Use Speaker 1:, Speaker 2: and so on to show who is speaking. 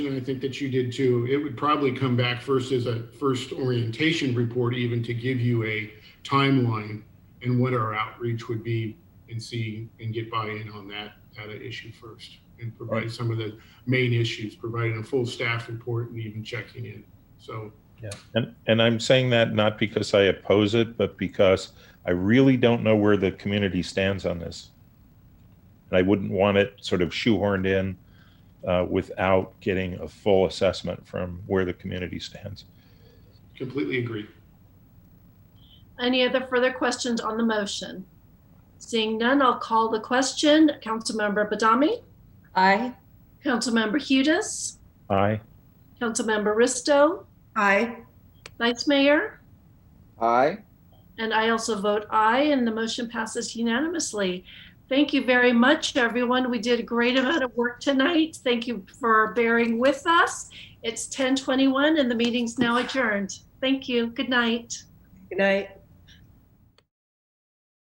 Speaker 1: and I think that you did too, it would probably come back first as a first orientation report, even to give you a timeline and what our outreach would be and see and get buy-in on that, that issue first and provide
Speaker 2: Right.
Speaker 1: some of the main issues, providing a full staff report and even checking in. So,
Speaker 2: And, and I'm saying that not because I oppose it, but because I really don't know where the community stands on this. And I wouldn't want it sort of shoehorned in uh, without getting a full assessment from where the community stands.
Speaker 1: completely agree.
Speaker 3: Any other further questions on the motion? Seeing none, I'll call the question. Councilmember Badami,
Speaker 4: Aye.
Speaker 3: Councilmember Hudis,
Speaker 2: Aye.
Speaker 3: Councilmember Risto,
Speaker 4: Aye.
Speaker 3: Vice Mayor,
Speaker 5: Aye.
Speaker 3: and I also vote aye, and the motion passes unanimously. Thank you very much, everyone. We did a great amount of work tonight. Thank you for bearing with us. It's 10:21 and the meeting's now adjourned. Thank you. Good night.
Speaker 4: Good night.